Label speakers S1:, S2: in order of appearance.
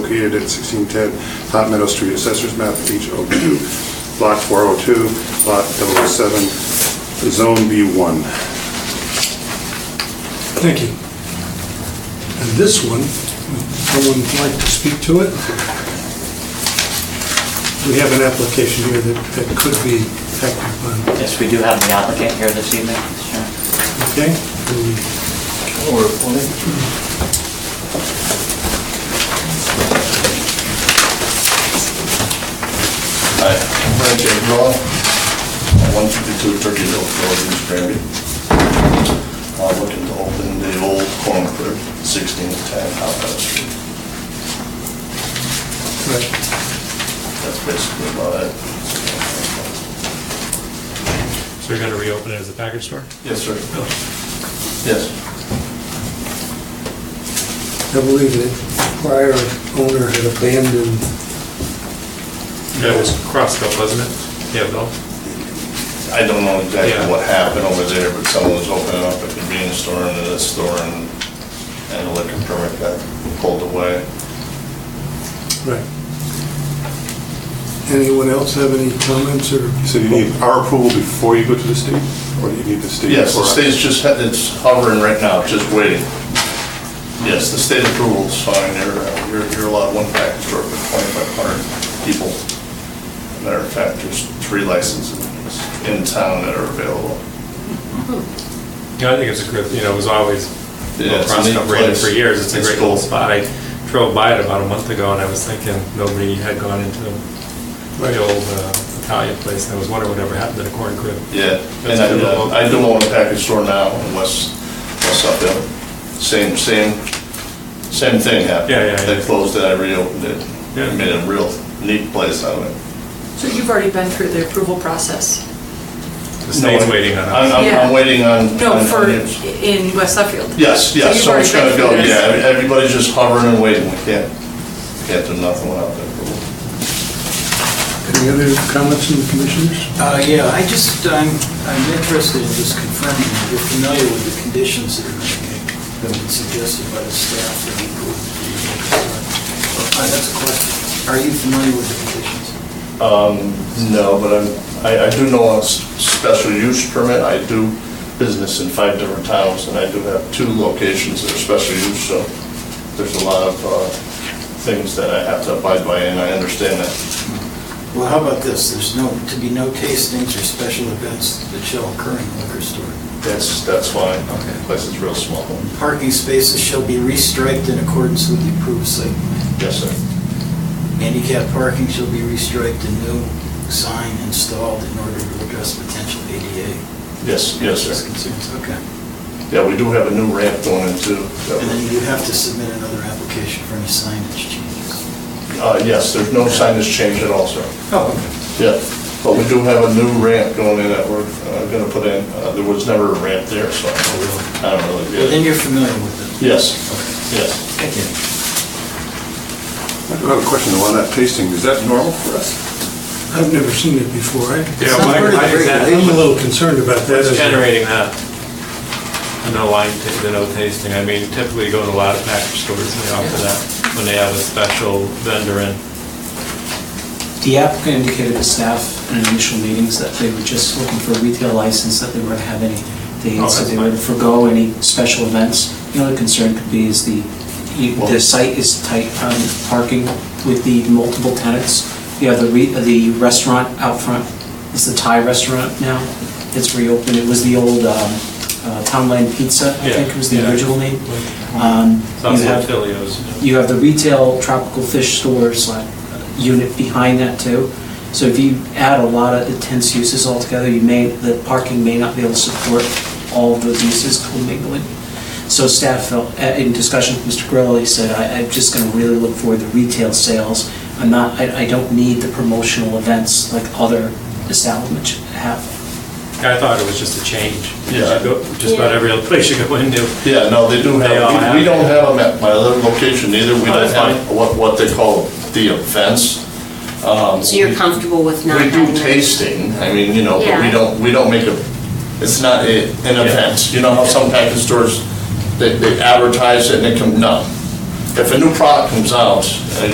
S1: located at 1610 Top Meadow Street, Assessors Map H02, Block 402, Lot 007, Zone B1.
S2: Thank you. And this one, would someone like to speak to it? We have an application here that that could be acted upon,
S3: Yes, we do have the applicant here this evening, Mr. Chairman.
S2: okay? Do we-
S4: Hi, I'm Brad J. Raw, 152 Turkey Hill, Northeast Granby. I'm looking to open the old corn crib, 1610 Hopkins Street.
S2: right.
S4: That's basically about it.
S5: So you're going to reopen it as a package store?
S4: Yes, sir. Yes.
S2: I believe the prior owner had abandoned,
S5: Yeah, it was Crossville, wasn't it? Yeah, Bill?
S4: I don't know exactly
S5: Yeah.
S4: what happened over there, but someone was opening up a convenience store and a store and and a liquor permit got pulled away.
S2: right. Anyone else have any comments or?
S1: So you need our approval before you go to the state? Or do you need the state?
S4: Yes,
S1: before
S4: the
S1: us?
S4: state's just, it's hovering right now, just waiting. Yes, the state approval's fine, you're, uh, you're you're allowed one package store with 2,500 people. Matter of fact, there's three licenses in town that are available.
S5: Yeah, I think it's a good, you know, it was always,
S4: Yeah, it's a
S5: Crossville
S4: neat
S5: rated
S4: place.
S5: for years, it's a
S4: It's
S5: great little
S4: cool.
S5: spot. I drove by it about a month ago, and I was thinking nobody had gone into the old uh, Italian place, and I was wondering whatever happened to the corn crib.
S4: Yeah, and
S5: That's
S4: I,
S5: good.
S4: uh, I do own a package store now in West, West Uphill. Same, same, same thing happened.
S5: Yeah, yeah, yeah.
S4: They closed it, I reopened it.
S5: Yeah.
S4: Made a real neat place out of it.
S6: So you've already been through the approval process?
S5: The state's
S4: No,
S5: waiting on
S4: I'm-
S5: us.
S4: I'm, I'm
S6: Yeah.
S4: waiting on.
S6: No,
S4: on-
S6: for,
S4: on you.
S6: in West Suffield?
S4: Yes, yes,
S6: So
S4: so it's
S6: you've
S4: gonna
S6: already
S4: go,
S6: been through
S4: yeah,
S6: this?
S4: everybody's just hovering and waiting, we can't, can't do nothing without that.
S2: Any other comments from the commissioners?
S7: Uh, Yeah, I just, I'm, I'm interested in just confirming that you're familiar with the conditions that have been suggested by the staff that we approved. Uh, That's a question. Are you familiar with the conditions?
S4: Um, No, but I'm, I, I do know a s- special use permit, I do business in five different towns, and I do have two locations that are special use, so there's a lot of, uh, things that I have to abide by, and I understand that.
S7: Well, how about this? There's no, to be no tastings or special events that shall occur in the liquor store.
S4: That's, that's fine,
S7: Okay.
S4: place is real small.
S7: Parking spaces shall be restriped in accordance with the approved site plan.
S4: Yes, sir.
S7: Handicap parking shall be restriped and no sign installed in order to address potential ADA
S4: Yes, yes,
S7: That's
S4: sir.
S7: concerns, okay.
S4: Yeah, we do have a new ramp going in too. that we're-
S7: And then you have to submit another application for any signage changes.
S4: Uh, Yes, there's no signage change at all, sir.
S7: Oh, okay.
S4: Yeah, but we do have a new ramp going in that we're going to put in. Uh, There was never a ramp there, so I don't really
S7: Well, then
S4: get it.
S7: you're familiar with it.
S4: Yes, yes.
S7: Thank you.
S1: I do have a question though on that tasting, is that normal for us?
S2: I've never seen it before. I-
S5: Yeah,
S7: It's not
S5: my-
S7: part of
S5: my-
S7: the
S5: exactly.
S2: I'm a little concerned about that.
S5: What's generating that? No line, ta- the no tasting, I mean typically you go to a lot of package stores and they offer that when they have a special vendor in.
S8: The applicant indicated to staff in initial meetings that they were just looking for a retail license, that they weren't having any, they
S5: Oh,
S8: had said
S5: that's
S8: they were to
S5: fine.
S8: forego any special events. The only concern could be is the, you- the site is tight on parking with the multiple tenants. You have the, re- the restaurant out front, it's the Thai restaurant now, it's reopened, it was the old um, uh, Town Line Pizza, I
S5: Yeah,
S8: think was the
S5: yeah. Uh-huh.
S8: original name. Um,
S5: It's
S8: You
S5: also
S8: have
S5: Filio's.
S8: you have the retail tropical fish store slash unit behind that too. So if you add a lot of intense uses altogether, you may, the parking may not be able to support all of those uses commingling. So staff felt, uh, in discussion with Mr. Grillo, he said, I, I'm just gonna really look for the retail sales. I'm not, I, I don't need the promotional events like other establishments have.
S5: I thought it was just a change.
S4: Yeah.
S5: You go- Just about every other place you go into.
S4: Yeah, no, they do
S5: They all
S4: have,
S5: have
S4: we- we
S5: it.
S4: don't have them at my other location either. We
S5: Oh,
S4: don't
S5: that's
S4: have
S5: fine.
S4: what, what they call the events.
S9: So you're comfortable with not
S4: We
S9: having?
S4: do
S9: that?
S4: tasting, I mean, you know, but we
S9: Yeah.
S4: don't, we don't make a, it's not a- an event. You know how some package stores, they, they advertise it and it come, no. If a new product comes out, uh,